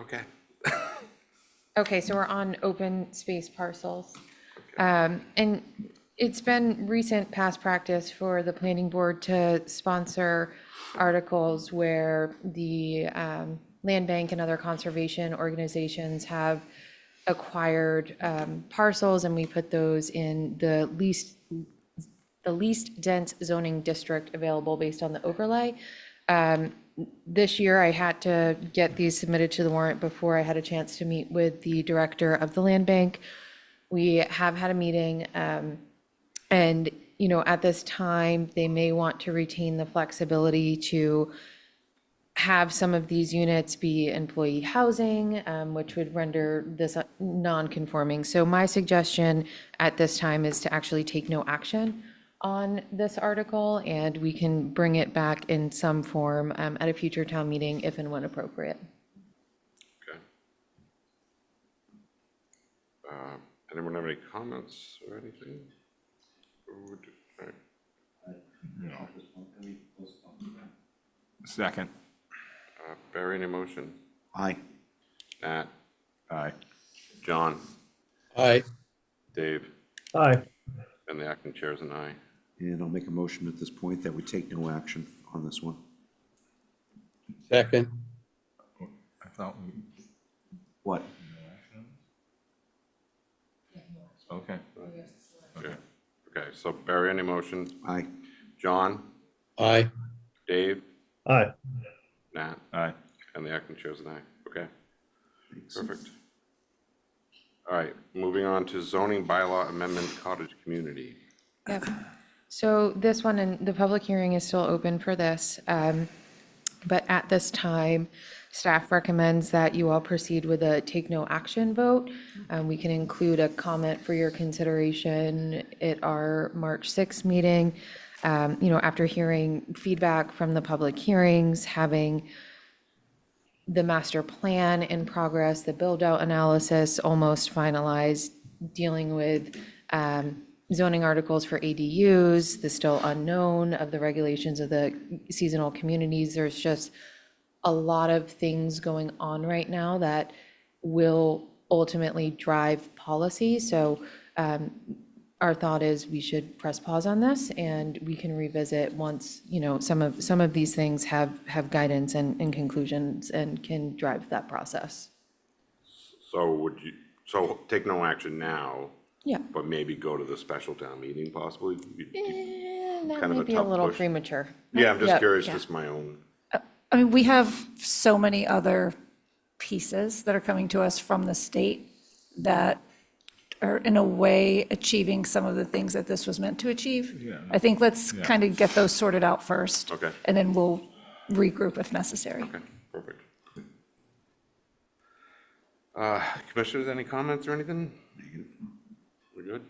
Okay. Okay, so we're on open space parcels. Um, And it's been recent past practice for the planning board to sponsor articles where the um, land bank and other conservation organizations have acquired um, parcels, and we put those in the least the least dense zoning district available based on the overlay. Um, This year, I had to get these submitted to the warrant before I had a chance to meet with the director of the land bank. We have had a meeting, um, and, you know, at this time, they may want to retain the flexibility to have some of these units be employee housing, um, which would render this uh, non-conforming. So my suggestion at this time is to actually take no action on this article, and we can bring it back in some form um, at a future town meeting if and when appropriate. Okay. Uh, Anyone have any comments or anything? Or would- uh, all right. Second. Uh, Barry, any motion? Aye. Nat, Aye. John, Aye. Dave, Aye. and the acting chairs and I. And I'll make a motion at this point that we take no action on this one. Second. I thought, we What? okay. Okay, Okay. so Barry, any motion? Aye. John, Aye. Dave, Aye. Nat, Aye. and the acting chairs and I. Okay, perfect. All right, moving on to zoning bylaw amendment cottage community. Yep. So this one, and the public hearing is still open for this. um, But at this time, staff recommends that you all proceed with a take no action vote. Um, We can include a comment for your consideration at our March 6th meeting. um, You know, after hearing feedback from the public hearings, having the master plan in progress, the build-out analysis almost finalized, dealing with um, zoning articles for ADUs, the still unknown of the regulations of the seasonal communities. There's just a lot of things going on right now that will ultimately drive policy. So um, our thought is we should press pause on this and we can revisit once, you know, some of, some of these things have, have guidance and, and conclusions and can drive that process. So would you, so take no action now, Yeah. but maybe go to the special town meeting possibly? You- you- That Kind of may a be a tough little push. premature. Yeah, I'm just Yeah, curious, yeah. just my own, I mean, we have so many other pieces that are coming to us from the state that are in a way achieving some of the things that this was meant to achieve. I think let's kind of get those sorted out first. Okay. And then we'll regroup if necessary. okay, perfect. Uh, Commissioners, any comments or anything? We're good?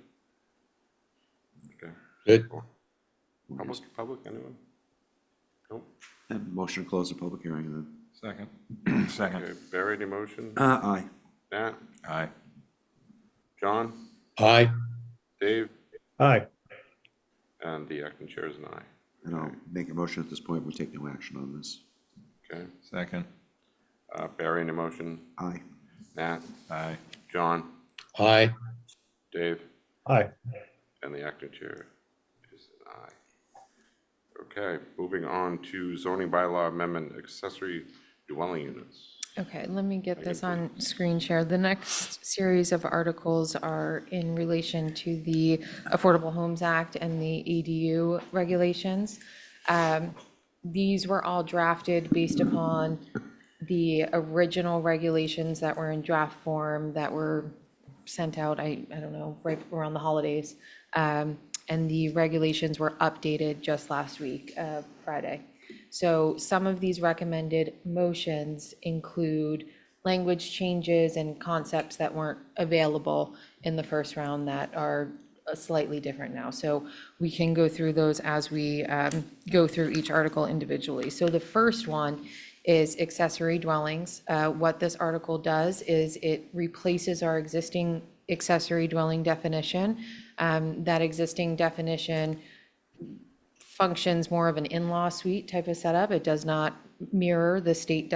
Okay. Good. Public, public, anyone? Nope. Then motion to close the public hearing and then. Second. Okay, Second. Barry, any motion? Uh, aye. Nat, Aye. John, Aye. Dave, Aye. and the acting chairs and I. And I'll make a motion at this point, we take no action on this. Okay, Second. Uh, Barry, any motion? Aye. Nat, Aye. John, Aye. Dave? Aye. And the acting chair is an aye. Okay, moving on to zoning bylaw amendment accessory dwelling units. Okay, let me get this on screen share. The next series of articles are in relation to the Affordable Homes Act and the ADU regulations. Um, These were all drafted based upon the original regulations that were in draft form that were sent out, I, I don't know, right around the holidays. Um, And the regulations were updated just last week, uh, Friday. So some of these recommended motions include language changes and concepts that weren't available in the first round that are uh, slightly different now. So we can go through those as we um, go through each article individually. So the first one is accessory dwellings. Uh, What this article does is it replaces our existing accessory dwelling definition. Um, That existing definition functions more of an in-law suite type of setup. It does not mirror the state